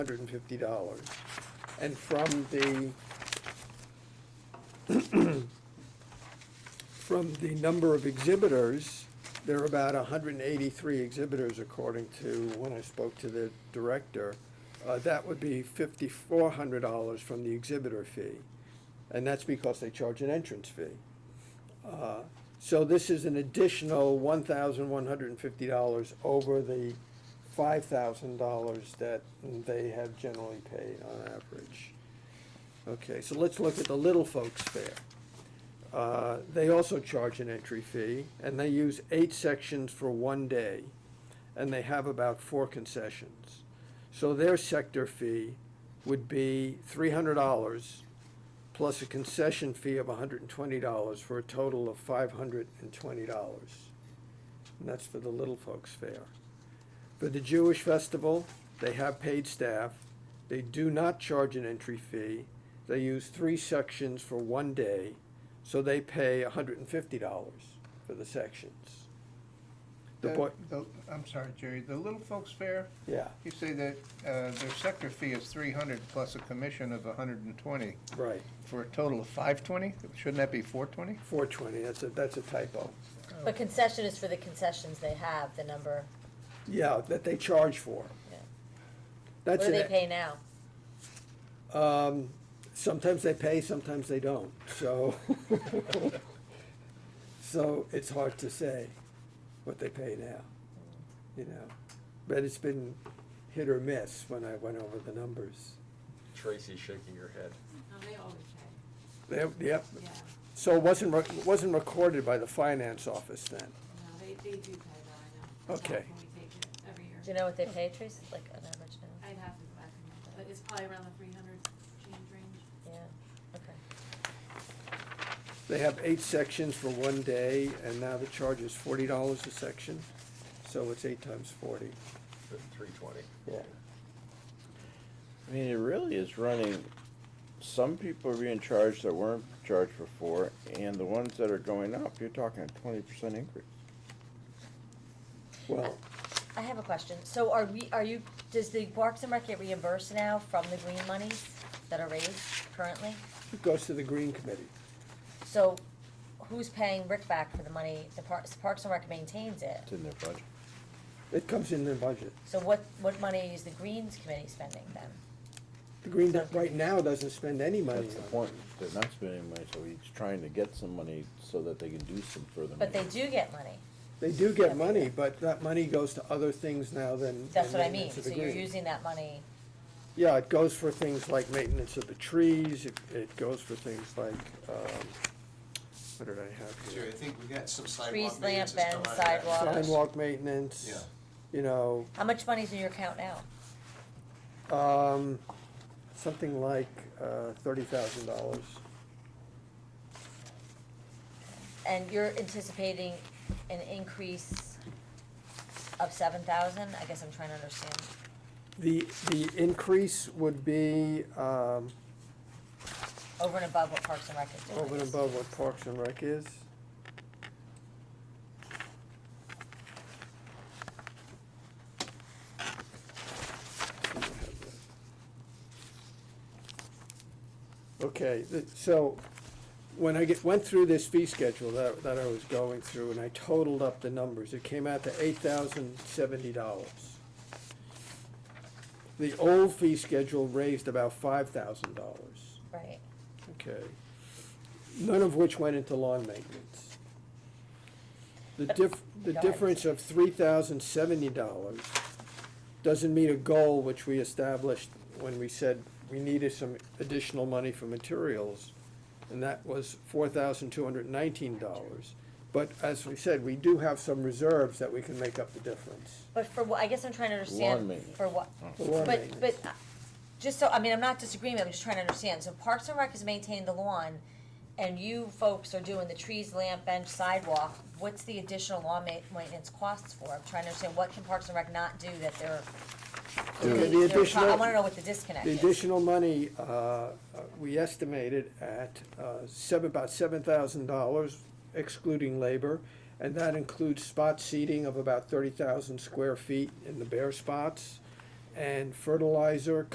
hundred and fifty dollars. And from the, from the number of exhibitors, there are about hundred and eighty-three exhibitors according to when I spoke to the director. Uh, that would be fifty-four hundred dollars from the exhibitor fee, and that's because they charge an entrance fee. Uh, So this is an additional one thousand one hundred and fifty dollars over the five thousand dollars that they have generally paid on average. Okay, so let's look at the Little Folks Fair. Uh, They also charge an entry fee, and they use eight sections for one day, and they have about four concessions. So their sector fee would be three hundred dollars plus a concession fee of hundred and twenty dollars for a total of five hundred and twenty dollars. And that's for the Little Folks Fair. For the Jewish Festival, they have paid staff. They do not charge an entry fee. They use three sections for one day, so they pay hundred and fifty dollars for the sections. The That- boy, the- I'm sorry, Jerry, the Little Folks Fair, yeah, you say that uh, their sector fee is three hundred plus a commission of hundred and twenty, right, for a total of five twenty? Shouldn't that be four twenty? four twenty, that's a, that's a typo. But concession is for the concessions they have, the number, Yeah, that they charge for. Yeah. what That's do they an- pay now? Um, sometimes they pay, sometimes they don't, so. So it's hard to say what they pay now, you know, but it's been hit or miss when I went over the numbers. Tracy's shaking her head. No, they always pay, They- Yep, yeah. so it wasn't, rec- it wasn't recorded by the finance office then, No, they, they do pay though, I know. It's Okay. often we take it every year. Do you know what they pay, Tracy, like on average now? I'd have to go back and look, but it's probably around the three hundred change range. Yeah, okay. They have eight sections for one day, and now the charge is forty dollars a section, so it's eight times forty. Three twenty. Yeah. I mean, it really is running, some people are being charged that weren't charged before, and the ones that are going up, you're talking a twenty percent increase. Well, I have a question. So are we, are you, does the Parks and Rec get reimbursed now from the green monies that are raised currently? it goes to the Green Committee. So who's paying Rick back for the money? The Parks, Parks and Rec maintains it. It's in their budget. It comes in their budget. So what, what money is the Greens Committee spending then? The Green, Dot right now, doesn't spend any money on That's it. the point. They're not spending money, so he's trying to get some money so that they can do some further. But they maintenance. do get money. They do get money, but that money goes to other things now than. That's than what I mean. maintenance of So the you're green. using that money, Yeah, it goes for things like maintenance of the trees, it, it goes for things like, um, what did I have Jerry, I here? think we got some Trees, lamp, sidewalk maintenance that's bend, come out of that. sidewalk. Sidewalk maintenance. Yeah. You know, How much money's in your account now? um, something like, uh, thirty thousand dollars. And you're anticipating an increase of seven thousand? I guess I'm trying to understand. The, the increase would be, um, Over and above what Parks and Rec is doing. over and above what Parks and Rec is. Okay, th- so when I get, went through this fee schedule that, that I was going through and I totaled up the numbers, it came out to eight thousand seventy dollars. The old fee schedule raised about five thousand dollars. Right. Okay. None of which went into lawn maintenance. The diff, the Go ahead. difference of three thousand seventy dollars doesn't meet a goal which we established when we said we needed some additional money for materials, and that was four thousand two hundred nineteen dollars. But as we said, we do have some reserves that we can make up the difference. But for what, I guess I'm trying to Lawn understand maintenance. Oh. for what, The lawn but, maintenance. but, uh, just so, I mean, I'm not disagreeing, I'm just trying to understand. So Parks and Rec is maintaining the lawn and you folks are doing the trees, lamp, bench, sidewalk. What's the additional lawn ma- maintenance costs for? I'm trying to understand what can Parks and Rec not do that they're, Okay, the they're pro- I additional- wanna know what the disconnect The is. additional money, uh, uh, we estimated at uh, seven, about seven thousand dollars excluding labor, and that includes spot seeding of about thirty thousand square feet in the bare spots, and fertilizer,